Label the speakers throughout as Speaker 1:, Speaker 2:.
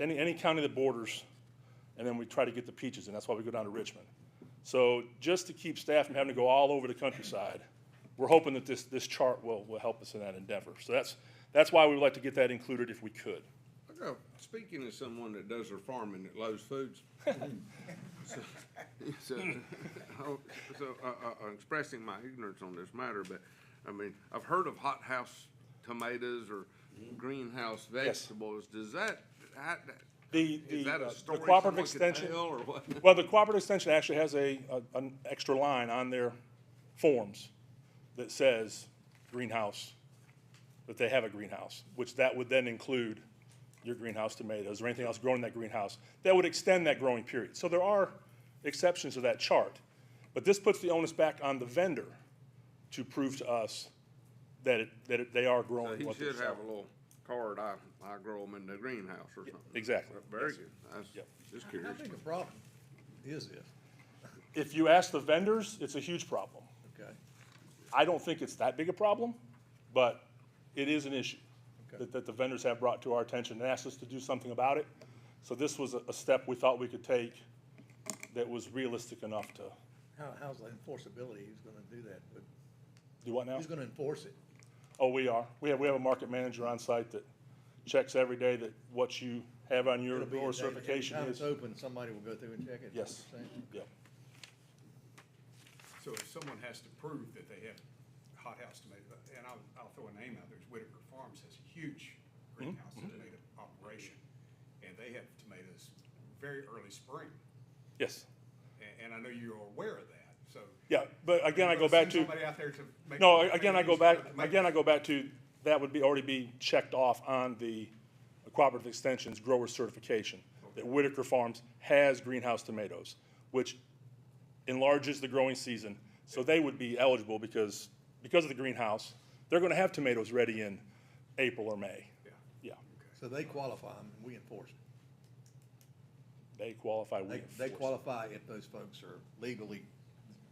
Speaker 1: any, any county that borders, and then we try to get the peaches, and that's why we go down to Richmond. So just to keep staff from having to go all over the countryside, we're hoping that this, this chart will, will help us in that endeavor. So that's, that's why we would like to get that included if we could.
Speaker 2: I got- Speaking as someone that does their farming at Lowe's Foods. so- So, oh, so, uh, uh, I'm expressing my ignorance on this matter, but, I mean, I've heard of hothouse tomatoes or
Speaker 1: Mm-hmm.
Speaker 2: greenhouse vegetables. Does that, how-
Speaker 1: The, the
Speaker 2: is that
Speaker 1: uh,
Speaker 2: a
Speaker 1: the
Speaker 2: story
Speaker 1: cooperative
Speaker 2: someone could
Speaker 1: extension.
Speaker 2: tell or what?
Speaker 1: Well, the cooperative extension actually has a, a- an extra line on their forms that says greenhouse, that they have a greenhouse, which that would then include your greenhouse tomatoes or anything else grown in that greenhouse. That would extend that growing period. So there are exceptions to that chart. But this puts the onus back on the vendor to prove to us that it, that it- they are growing
Speaker 2: He
Speaker 1: what they're
Speaker 2: should have a
Speaker 1: selling.
Speaker 2: little card, I, I grow them in the greenhouse or something.
Speaker 1: Exactly.
Speaker 2: Very good. I was
Speaker 1: Yep.
Speaker 2: just
Speaker 3: How
Speaker 2: curious.
Speaker 3: big a problem is this?
Speaker 1: If you ask the vendors, it's a huge problem.
Speaker 3: Okay,
Speaker 1: I don't think it's that big a problem, but it is an issue
Speaker 3: Okay.
Speaker 1: that, that the vendors have brought to our attention and asked us to do something about it. So this was a, a step we thought we could take that was realistic enough to,
Speaker 3: how, how's the enforceability, who's gonna do that, but
Speaker 1: do what now?
Speaker 3: who's gonna enforce it?
Speaker 1: Oh, we are. We have, we have a market manager on site that checks every day that what you have on your
Speaker 3: It'll be a
Speaker 1: grower
Speaker 3: day that
Speaker 1: certification
Speaker 3: Every time
Speaker 1: is.
Speaker 3: it's open, somebody will go through and check it. is
Speaker 1: Yes,
Speaker 3: what you're saying?
Speaker 1: yep,
Speaker 4: So if someone has to prove that they have hothouse tomato, and I'll, I'll throw a name out there, it's Whitaker Farms has a huge
Speaker 1: Mm-hmm.
Speaker 4: greenhouse tomato operation. And they have tomatoes very early spring,
Speaker 1: yes.
Speaker 4: and, and I know you're aware of that, so.
Speaker 1: Yeah, but again, I go back to.
Speaker 4: Send Somebody out there to make.
Speaker 1: No, again, I go back,
Speaker 4: make-
Speaker 1: again, I go back to, that would be, already be checked off on the cooperative extensions grower certification, that Whitaker Farms has greenhouse tomatoes, which enlarges the growing season, so they would be eligible because, because of the greenhouse, they're gonna have tomatoes ready in April or May.
Speaker 4: Yeah.
Speaker 1: Yeah,
Speaker 3: So they qualify them, and we enforce it.
Speaker 1: they qualify, we
Speaker 3: They, they
Speaker 1: enforce.
Speaker 3: qualify if those folks are legally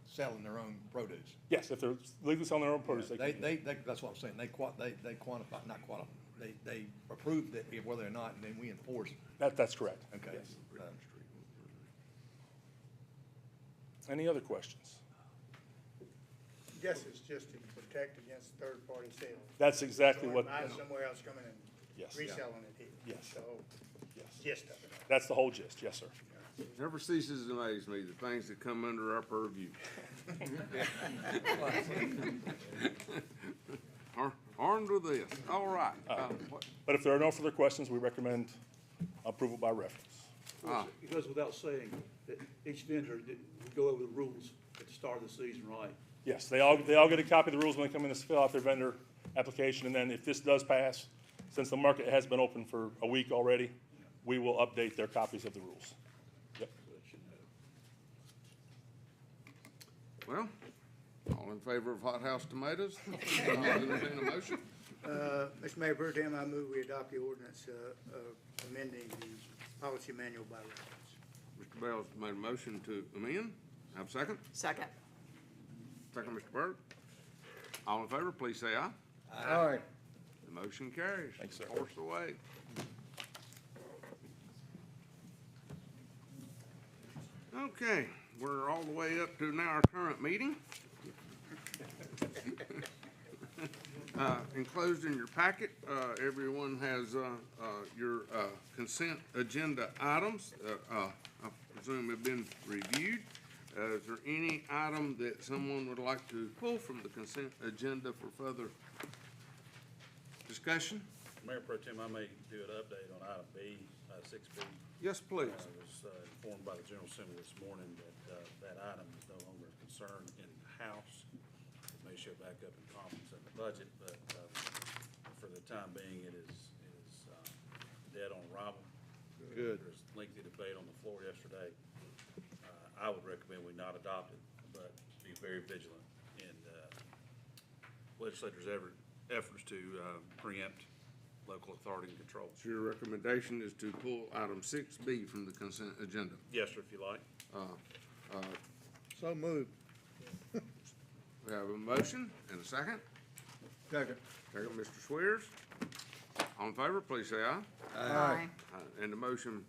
Speaker 3: selling their own produce.
Speaker 1: Yes, if they're legally selling their own produce, they
Speaker 3: They,
Speaker 1: can,
Speaker 3: they, they, that's what I'm saying, they qua, they, they quantify, not qualify, they, they approve that whether or not, and then we enforce it,
Speaker 1: that, that's correct.
Speaker 3: okay?
Speaker 1: Yes.
Speaker 3: Um,
Speaker 1: Any other questions?
Speaker 5: Guess it's just to protect against third-party sales.
Speaker 1: That's exactly
Speaker 5: Someone
Speaker 1: what,
Speaker 5: buys somewhere else coming and
Speaker 1: Yes.
Speaker 5: reselling it here.
Speaker 1: Yes.
Speaker 5: So,
Speaker 1: Yes.
Speaker 5: gist of it.
Speaker 1: that's the whole gist, yes, sir.
Speaker 2: Never ceases to amaze me, the things that come under our purview. Ar- Armed with this, all right. Uh, what-
Speaker 1: But if there are no further questions, we recommend approval by reference.
Speaker 2: ah,
Speaker 6: It goes without saying that each vendor, that we go over the rules at the start of the season, right?
Speaker 1: Yes, they all, they all get a copy of the rules when they come in to fill out their vendor application, and then if this does pass, since the market has been open for a week already, we will update their copies of the rules. Yep.
Speaker 2: Well, all in favor of hothouse tomatoes? I'll entertain a motion.
Speaker 5: Uh, Mr. Mayor, Pro Tem, I move we adopt the ordinance, uh, uh, amending the policy manual by reference.
Speaker 2: Mr. Bell's made a motion to amend. Have a second?
Speaker 7: Second.
Speaker 2: Second, Mr. Byrd. All in favor, please say aye.
Speaker 3: Uh,
Speaker 5: All right.
Speaker 2: The motion carries.
Speaker 1: Thanks, sir.
Speaker 2: Force away. Okay, we're all the way up to now our current meeting. Uh, Enclosed in your packet, uh, everyone has uh, uh, your uh, consent agenda items, uh, uh, I presume have been reviewed. Uh, Is there any item that someone would like to pull from the consent agenda for further discussion?
Speaker 8: Mayor Pro Tem, I may do an update on item B, uh, six B.
Speaker 2: Yes, please.
Speaker 8: I was uh, informed by the General Assembly this morning that uh, that item is no longer a concern in the House. It may show back up in conference in the budget, but uh, for the time being, it is, it is um, dead on arrival. Good. There's lengthy debate on the floor yesterday. Uh, I would recommend we not adopt it, but be very vigilant in uh, legislators' ever- efforts to uh, preempt local authority and control.
Speaker 2: So your recommendation is to pull item six B from the consent agenda.
Speaker 8: Yes, sir, if you like.
Speaker 3: So moved.
Speaker 2: We have a motion and a second.
Speaker 3: Second.
Speaker 2: Second, Mr. Swears. All in favor, please say aye.
Speaker 7: Aye.
Speaker 2: Aye. And the motion